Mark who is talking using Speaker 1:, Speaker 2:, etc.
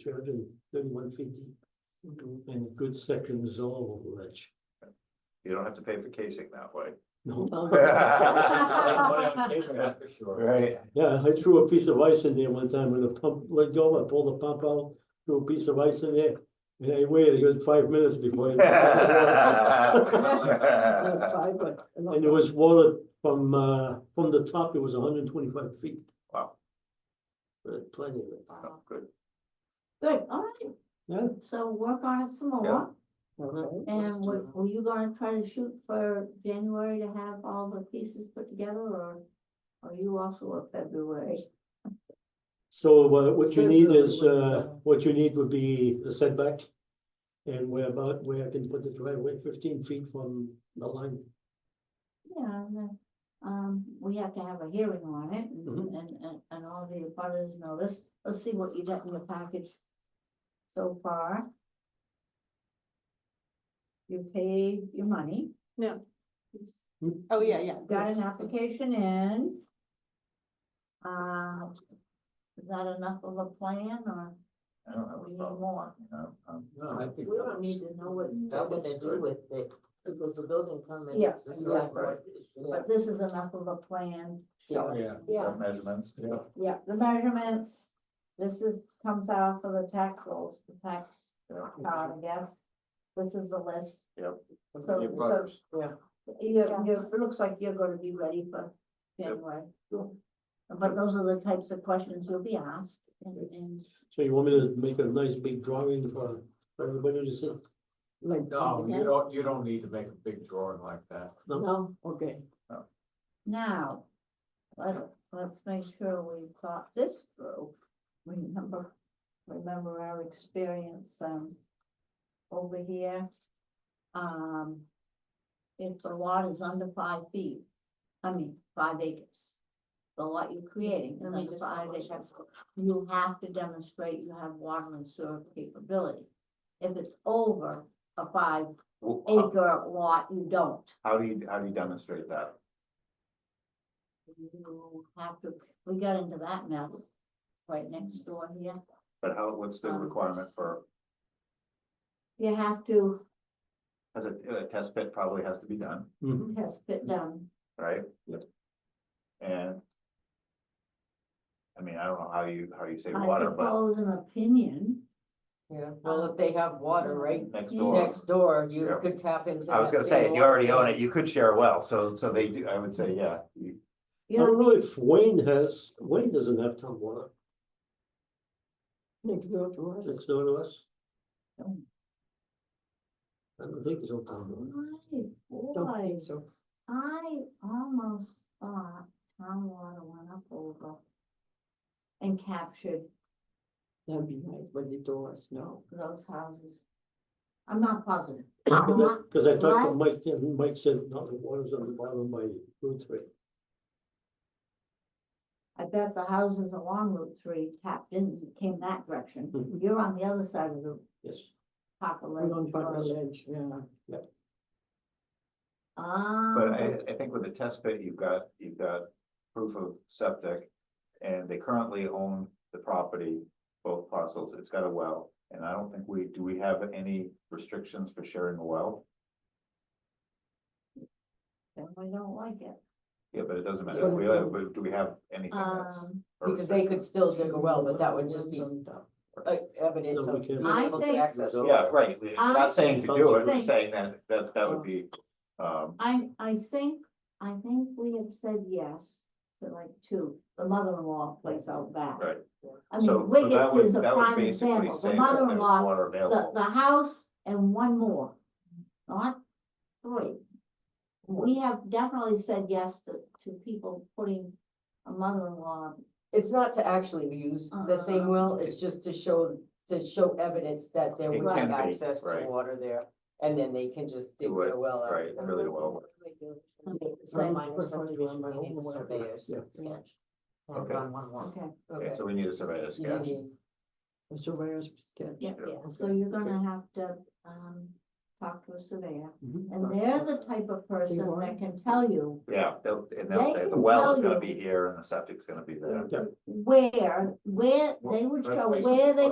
Speaker 1: three hundred and thirty-one feet deep. Mm-hmm. And a good second is all over ledge.
Speaker 2: You don't have to pay for casing that way.
Speaker 1: No.
Speaker 3: For sure.
Speaker 2: Right.
Speaker 1: Yeah, I threw a piece of ice in there one time when the pump let go, I pulled the pump out, threw a piece of ice in there. And I waited a good five minutes before. it- And it was water from, uh, from the top, it was hundred and twenty-five feet.
Speaker 2: Wow.
Speaker 1: But plenty of it.
Speaker 2: Oh, Good.
Speaker 3: Good, all right.
Speaker 1: Yeah.
Speaker 3: So work on it some
Speaker 2: Yeah.
Speaker 3: more, and were, were you gonna try to shoot for January to have all the pieces put together, or? Are you also a February?
Speaker 1: So uh, what you need
Speaker 3: February
Speaker 1: is,
Speaker 3: would be
Speaker 1: uh,
Speaker 3: better.
Speaker 1: what you need would be the setback. And where about, where I can put the driveway fifteen feet from the line.
Speaker 3: Yeah, and then, um, we have to have a hearing on it and,
Speaker 1: Mhm.
Speaker 3: and, and- and all the abutters notice, let's see what you got in the package. So far. You paid your money,
Speaker 4: It's-
Speaker 1: Hmm?
Speaker 4: Oh, yeah, yeah.
Speaker 3: got
Speaker 4: yes.
Speaker 3: an application in. Uh, is that enough of a plan or
Speaker 2: I don't have
Speaker 3: we
Speaker 2: a
Speaker 3: need
Speaker 2: problem,
Speaker 3: more?
Speaker 2: you know, um,
Speaker 5: We don't need to know what
Speaker 2: that
Speaker 5: they're gonna
Speaker 2: looks
Speaker 5: do
Speaker 2: good.
Speaker 5: with it, it was the building permit.
Speaker 3: Yeah,
Speaker 5: Um, it's the select board issue.
Speaker 3: But this is enough of a plan.
Speaker 5: Yeah.
Speaker 1: Yeah.
Speaker 4: Yeah,
Speaker 2: the Measurements, yeah.
Speaker 3: Yeah, the measurements, this is, comes out for the tax rolls, the tax card, I guess. This is the list.
Speaker 2: Yep.
Speaker 3: So,
Speaker 2: Your
Speaker 3: so,
Speaker 2: butters.
Speaker 5: Yeah.
Speaker 3: you it looks like you're gonna be ready for
Speaker 2: Yep.
Speaker 3: January. But those are the types of questions you'll be asked and, and.
Speaker 1: So you want me to make a nice big drawing for for everybody to see?
Speaker 5: Like,
Speaker 2: Oh,
Speaker 6: No,
Speaker 5: yeah.
Speaker 6: you don't, you don't need to make a big drawing like that.
Speaker 5: No, okay.
Speaker 3: Oh, Now, let, let's make sure we thought this through. Remember, remember our experience, um, over here. Um, if the lot is under five feet, I mean, five acres. The lot you're creating is
Speaker 5: Let me
Speaker 3: under
Speaker 5: just
Speaker 3: five
Speaker 5: double check.
Speaker 3: acres, you have to demonstrate you have water and sewer capability. If it's over a five
Speaker 2: Well, how-
Speaker 3: acre lot, you don't.
Speaker 2: How do you, how do you demonstrate that?
Speaker 3: You have to, we got into that mess right next door here.
Speaker 2: But how, what's the
Speaker 3: Um,
Speaker 2: requirement for,
Speaker 3: You have to
Speaker 2: as a, a test pit probably has to be done,
Speaker 3: test fit down.
Speaker 2: right?
Speaker 1: Yep.
Speaker 2: And I mean, I don't know how you, how you say
Speaker 3: I
Speaker 2: water, but
Speaker 3: suppose an opinion.
Speaker 5: Yeah, well, if they have water right
Speaker 2: next
Speaker 3: you-
Speaker 2: door.
Speaker 5: next door, you
Speaker 2: Yeah.
Speaker 5: could tap into.
Speaker 2: I was
Speaker 5: that
Speaker 2: gonna say,
Speaker 5: same
Speaker 2: if you already
Speaker 5: water.
Speaker 2: own it, you could share a well, so, so they do, I would say, yeah. you-
Speaker 1: I
Speaker 3: You
Speaker 1: don't
Speaker 3: know,
Speaker 1: know if Wayne has, Wayne doesn't have town water
Speaker 5: Next door to us.
Speaker 1: next door to us. I don't think he's on town water.
Speaker 3: my
Speaker 5: Don't
Speaker 3: boy,
Speaker 5: think so.
Speaker 3: I almost thought town water went up over and captured
Speaker 5: That'd be nice, but the doors, no.
Speaker 3: those houses. I'm not positive.
Speaker 5: Uh-huh.
Speaker 3: I'm not
Speaker 1: Cause I talked to
Speaker 3: What?
Speaker 1: Mike, and Mike said, no, the water's on the bottom by Route three.
Speaker 3: I bet the houses along Route three tapped in, came that
Speaker 2: Hmm.
Speaker 3: direction. You're on the other side of the
Speaker 1: Yes,
Speaker 3: Parker
Speaker 5: We're on
Speaker 3: Lane
Speaker 5: Butler
Speaker 3: Road.
Speaker 5: Ledge, yeah.
Speaker 2: But
Speaker 3: Ah,
Speaker 2: I, I think with the test pit, you've got, you've got proof of septic, and they currently own the property, both parcels, it's got a well. And I don't think we, do we have any restrictions for sharing a well?
Speaker 3: then we don't like it.
Speaker 2: Yeah, but it doesn't matter, if we, have- but do we have anything that's?
Speaker 3: Um,
Speaker 2: a
Speaker 5: Because they could
Speaker 2: restriction?
Speaker 5: still dig a well, but that would just be like evidence
Speaker 1: No, we
Speaker 5: of
Speaker 1: can't.
Speaker 5: being
Speaker 3: I
Speaker 5: able to
Speaker 3: think-
Speaker 5: access.
Speaker 2: Yeah, right, we're
Speaker 3: I
Speaker 2: not saying to do it, we're
Speaker 3: think-
Speaker 2: saying that, that, that would be, um,
Speaker 3: I, I think, I think we have said yes to like two, the mother-in-law place out back.
Speaker 2: right. So,
Speaker 3: I mean,
Speaker 2: so that
Speaker 3: Wiggins
Speaker 2: would,
Speaker 3: is a
Speaker 2: that would
Speaker 3: prime
Speaker 2: basically
Speaker 3: example,
Speaker 2: say
Speaker 3: the
Speaker 2: that there's
Speaker 3: mother-in-law,
Speaker 2: water
Speaker 3: the,
Speaker 2: available.
Speaker 3: the house and one more, not three. We have definitely said yes to, to people putting a mother-in-law
Speaker 7: It's not to actually use
Speaker 5: Uh-huh.
Speaker 7: the same well, it's just to show, to show evidence that there
Speaker 2: It
Speaker 7: would be
Speaker 2: can be,
Speaker 7: access to
Speaker 2: right.
Speaker 7: water there. And then they can just dig
Speaker 2: Do it,
Speaker 7: their well out.
Speaker 2: Right, really well,
Speaker 3: Same
Speaker 5: Reminder
Speaker 7: person
Speaker 5: subdivision,
Speaker 7: doing my
Speaker 5: we need
Speaker 7: own
Speaker 5: a
Speaker 7: work.
Speaker 5: surveyor's
Speaker 1: Yeah.
Speaker 5: sketch.
Speaker 2: Okay.
Speaker 5: Or on one lot.
Speaker 3: Okay,
Speaker 2: okay,
Speaker 7: Okay.
Speaker 2: so we need a surveyor's
Speaker 7: You
Speaker 2: sketch,
Speaker 7: need-
Speaker 5: A surveyor's sketch.
Speaker 3: yeah,
Speaker 2: Yeah,
Speaker 3: yeah, so you're gonna have to, um, talk to a surveyor. And they're the type of person
Speaker 5: why?
Speaker 3: that can tell you
Speaker 2: yeah, they'll, and
Speaker 3: They
Speaker 2: they'll, the
Speaker 3: can
Speaker 2: well is
Speaker 3: tell
Speaker 2: gonna be
Speaker 3: you-
Speaker 2: here and the septic's gonna be there.
Speaker 1: Yeah.
Speaker 3: where, where, they would
Speaker 6: Well,
Speaker 3: show
Speaker 6: that's
Speaker 3: where they